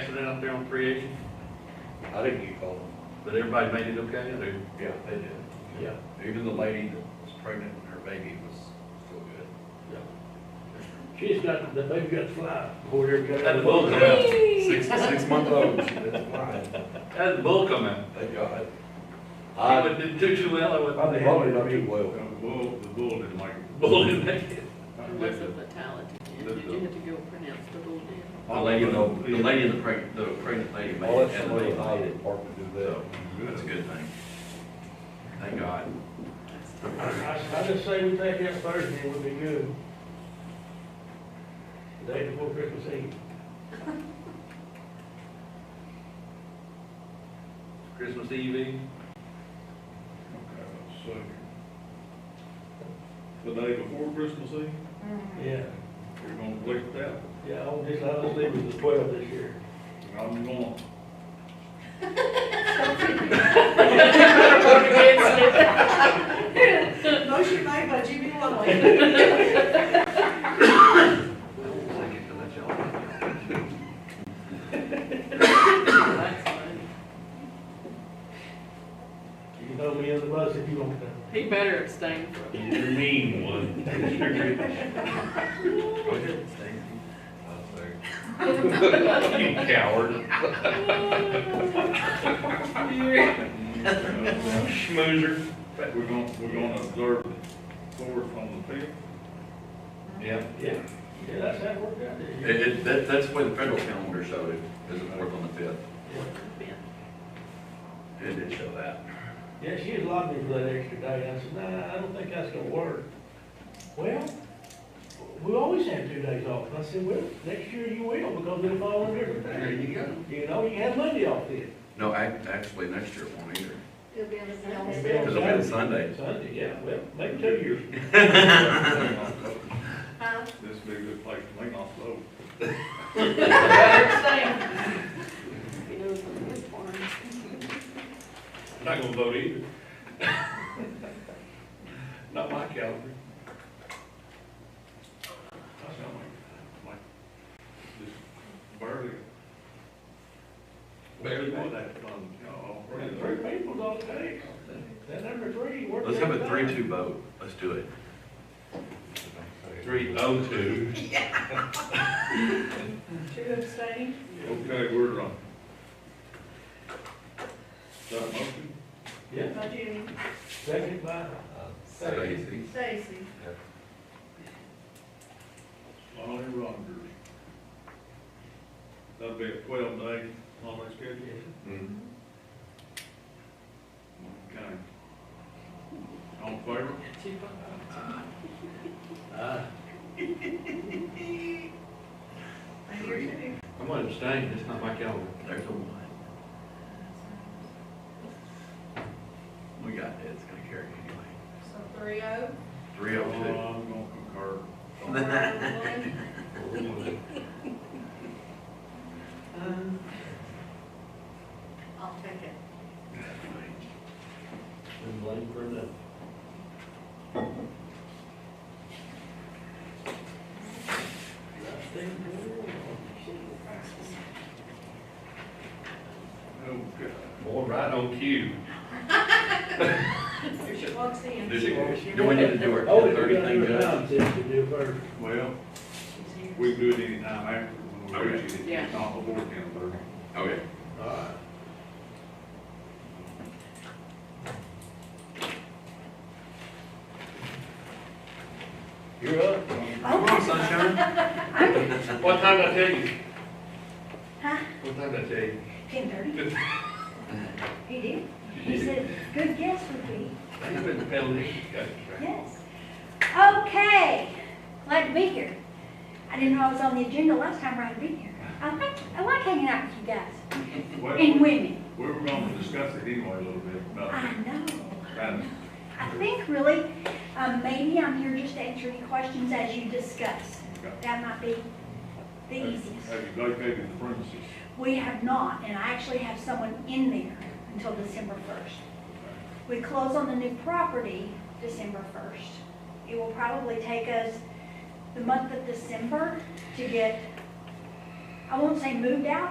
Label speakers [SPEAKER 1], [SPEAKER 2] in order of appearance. [SPEAKER 1] out there on creation,
[SPEAKER 2] I think you called them.
[SPEAKER 1] but everybody made it okay, they,
[SPEAKER 2] Yeah, they did.
[SPEAKER 1] Yeah.
[SPEAKER 2] Even the lady that was pregnant and her baby was still good.
[SPEAKER 3] She's got, the baby got the fly, or they're got.
[SPEAKER 1] had the bull come out,
[SPEAKER 2] Six, six month old, she was fine,
[SPEAKER 1] had the bull come out.
[SPEAKER 2] thank God.
[SPEAKER 1] He
[SPEAKER 2] I,
[SPEAKER 1] wouldn't did too, too well, I would.
[SPEAKER 2] probably not too well.
[SPEAKER 1] The bull, the bull didn't like it. Bull didn't make it.
[SPEAKER 4] It was a fatality, and
[SPEAKER 1] That's
[SPEAKER 4] you have to go pronounce the whole deal.
[SPEAKER 1] The lady, the the lady, the pregnant, the pregnant lady made
[SPEAKER 2] Well,
[SPEAKER 1] it,
[SPEAKER 2] that's
[SPEAKER 1] and the
[SPEAKER 2] somebody
[SPEAKER 1] baby
[SPEAKER 2] in the
[SPEAKER 1] made
[SPEAKER 2] highway
[SPEAKER 1] it.
[SPEAKER 2] department do
[SPEAKER 1] So,
[SPEAKER 2] that.
[SPEAKER 1] that's a good thing. Thank God.
[SPEAKER 3] I, I just say we take that Thursday, it would be good. The Day before Christmas Eve.
[SPEAKER 1] Christmas Eve, Eve,
[SPEAKER 5] The day before Christmas Eve,
[SPEAKER 3] Yeah,
[SPEAKER 5] you're gonna collect that,
[SPEAKER 3] yeah, I'll just, I'll just leave it at twelve this year.
[SPEAKER 5] and I'm gonna,
[SPEAKER 6] Motion made by Jimmy Lovett.
[SPEAKER 4] That's funny.
[SPEAKER 3] You can throw me in the bus if you want to.
[SPEAKER 4] He better abstain from it.
[SPEAKER 5] you're mean one.
[SPEAKER 2] Go ahead, Stacy. I'll say.
[SPEAKER 5] You coward. Schmoozer. We're gonna, we're gonna observe the fourth on the fifth.
[SPEAKER 1] yeah.
[SPEAKER 3] Yeah, yeah, that's how it worked out
[SPEAKER 1] It,
[SPEAKER 3] there.
[SPEAKER 1] it, that, that's the way the federal calendar showed it, is the fourth on the fifth. It did show that.
[SPEAKER 3] Yeah, she was lobbying me for that extra day, I said, nah, I don't think that's gonna work. Well, we always have two days off, and I said, well, next year you will, because it'll fall on different
[SPEAKER 1] There
[SPEAKER 3] day.
[SPEAKER 1] you go.
[SPEAKER 3] You know, you have Monday off then.
[SPEAKER 1] No, ac- actually, next year it won't either,
[SPEAKER 6] It'll be on the
[SPEAKER 3] It'll
[SPEAKER 6] same
[SPEAKER 3] be on
[SPEAKER 1] because it'll be on Sunday.
[SPEAKER 3] Sunday, yeah, well, maybe two years.
[SPEAKER 6] Huh?
[SPEAKER 5] This would be a good place to make off load.
[SPEAKER 4] Better abstain. He knows what his farm is.
[SPEAKER 5] Not gonna vote either. Not my caliber. That's not my, my, just barely. Barely won that fund, no,
[SPEAKER 3] We got
[SPEAKER 5] already.
[SPEAKER 3] Three people don't take, that number three worked.
[SPEAKER 1] Let's have a
[SPEAKER 3] out.
[SPEAKER 1] three-two vote, let's do it.
[SPEAKER 5] Three oh two.
[SPEAKER 6] Two abstaining.
[SPEAKER 5] Okay, we're on. Is that a motion?
[SPEAKER 3] Yeah,
[SPEAKER 6] By Jimmy.
[SPEAKER 3] second by,
[SPEAKER 1] Stacy.
[SPEAKER 6] Stacy.
[SPEAKER 5] Lonnie Rogers. That'd be a twelve day, holiday schedule.
[SPEAKER 2] Mm.
[SPEAKER 5] Okay. All in favor?
[SPEAKER 4] Cheaper.
[SPEAKER 3] uh,
[SPEAKER 6] And you're two.
[SPEAKER 1] I'm gonna abstain, it's not my calendar. There's a one. We got it, it's gonna carry anyway.
[SPEAKER 6] So three oh.
[SPEAKER 1] Three
[SPEAKER 5] Uh,
[SPEAKER 1] oh
[SPEAKER 5] I'm gonna concur.
[SPEAKER 6] Four oh one. I'll take it.
[SPEAKER 3] and blame for another.
[SPEAKER 5] Okay. Boy, right on cue.
[SPEAKER 6] Here she walks in.
[SPEAKER 1] two. Do we need to do our
[SPEAKER 3] Oh,
[SPEAKER 1] ten
[SPEAKER 3] if
[SPEAKER 1] thirty
[SPEAKER 3] you're
[SPEAKER 1] thing,
[SPEAKER 3] gonna do a
[SPEAKER 1] Judge?
[SPEAKER 3] time since you do first.
[SPEAKER 5] Well,
[SPEAKER 6] She's here.
[SPEAKER 5] we can do it anytime after, when we reach it,
[SPEAKER 4] Yeah.
[SPEAKER 5] it's not before ten thirty.
[SPEAKER 1] Okay.
[SPEAKER 3] All right.
[SPEAKER 1] You're up. Come on, sunshine.
[SPEAKER 5] What time did I tell you?
[SPEAKER 6] Huh?
[SPEAKER 5] What time did I tell you?
[SPEAKER 6] Ten thirty. He did. He said, good guess would be,
[SPEAKER 5] I've been peddling these guys, right?
[SPEAKER 6] yes. Okay, glad to be here. I didn't know I was on the agenda last time around to be here. I like, I like hanging out with you guys
[SPEAKER 5] Well,
[SPEAKER 6] and women.
[SPEAKER 5] We were gonna discuss it anyway a little bit, about,
[SPEAKER 6] I know.
[SPEAKER 5] about
[SPEAKER 6] I think really, um, maybe I'm here just to answer any questions as you discuss. That might be the easiest.
[SPEAKER 5] Have you vacated the premises?
[SPEAKER 6] We have not, and I actually have someone in there until December first. We close on the new property December first. It will probably take us the month of December to get, I won't say moved out,